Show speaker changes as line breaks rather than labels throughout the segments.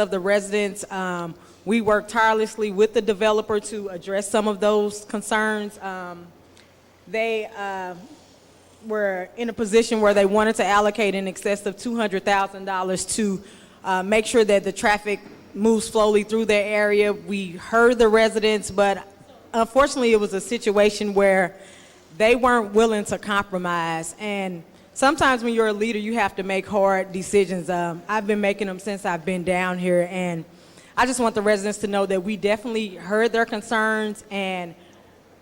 of the residents. Um, We work tirelessly with the developer to address some of those concerns. Um, They uh, were in a position where they wanted to allocate in excess of $200,000 to uh, make sure that the traffic moves slowly through their area. We heard the residents, but unfortunately, it was a situation where they weren't willing to compromise. And sometimes when you're a leader, you have to make hard decisions. Um, I've been making them since I've been down here, and I just want the residents to know that we definitely heard their concerns and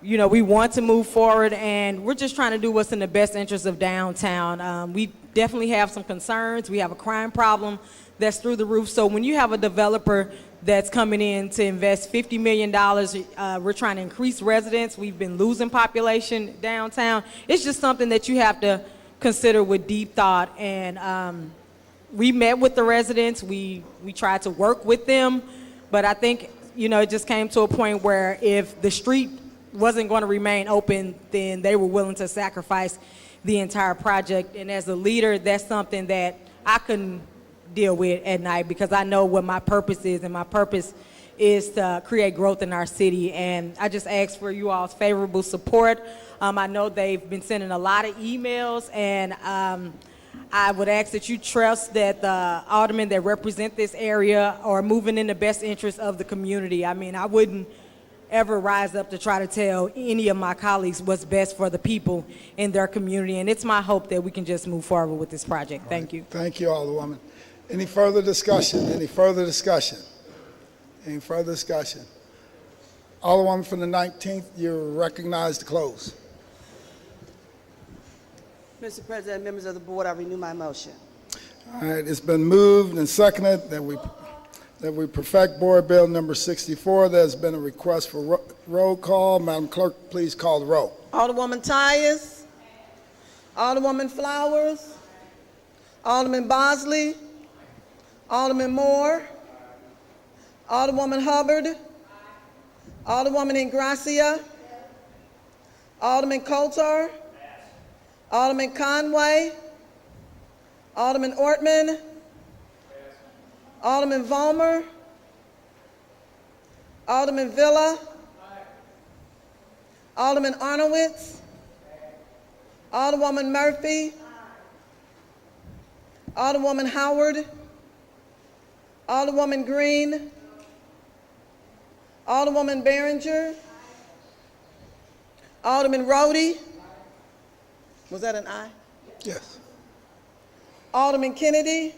you know, we want to move forward, and we're just trying to do what's in the best interest of downtown. Um, we definitely have some concerns. We have a crime problem that's through the roof. So when you have a developer that's coming in to invest $50 million, uh, we're trying to increase residents. We've been losing population downtown. It's just something that you have to consider with deep thought. And um, we met with the residents. We, we tried to work with them. But I think, you know, it just came to a point where if the street wasn't going to remain open, then they were willing to sacrifice the entire project. And as a leader, that's something that I couldn't deal with at night because I know what my purpose is, and my purpose is to create growth in our city. And I just ask for you all's favorable support. Um, I know they've been sending a lot of emails, and um, I would ask that you trust that the aldermen that represent this area are moving in the best interest of the community. I mean, I wouldn't ever rise up to try to tell any of my colleagues what's best for the people in their community, and it's my hope that we can just move forward with this project. Thank you.
Thank you, Alderwoman. Any further discussion? Any further discussion? Any further discussion? Alderwoman from the 19th, you're recognized to close.
Mr. President, members of the board, I renew my motion.
All right, it's been moved and seconded that we, that we perfect Board Bill Number 64. There's been a request for ro- roll call. Madam Clerk, please call the roll.
Alderwoman Tyus. Alderwoman Flowers. Alderman Bosley. Alderman Moore. Alderwoman Hubbard. Alderwoman Ingracia. Alderman Coulter. Alderman Conway. Alderman Ortman. Alderman Vollmer. Alderman Villa. Alderman Arnowitz. Alderwoman Murphy. Alderwoman Howard. Alderwoman Green. Alderwoman Behringer. Alderman Rhodey. Was that an aye?
Yes.
Alderman Kennedy.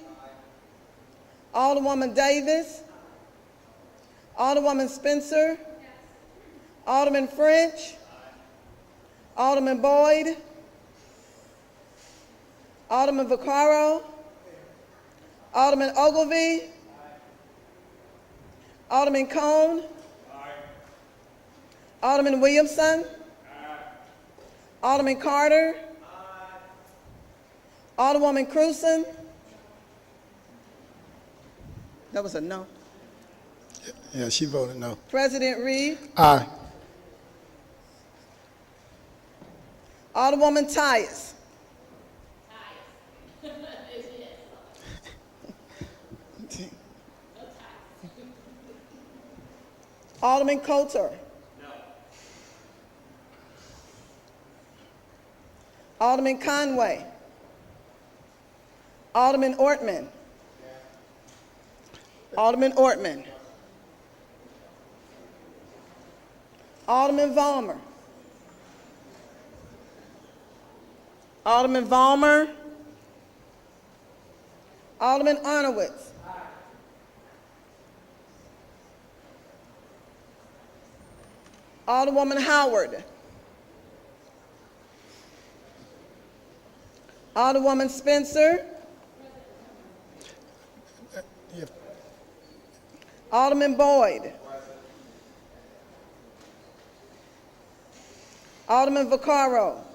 Alderwoman Davis. Alderwoman Spencer. Alderman French. Alderman Boyd. Alderman Vaccaro. Alderman Ogilvy. Alderman Cone. Alderman Williamson. Alderman Carter. Alderwoman Cruzen. That was a no.
Yeah, she voted no.
President Reed.
Aye.
Alderwoman Tyus. Alderman Coulter. Alderman Conway. Alderman Ortman. Alderman Ortman. Alderman Vollmer. Alderman Vollmer. Alderman Arnowitz. Alderwoman Howard. Alderwoman Spencer.
If-
Alderman Boyd. Alderman Vaccaro.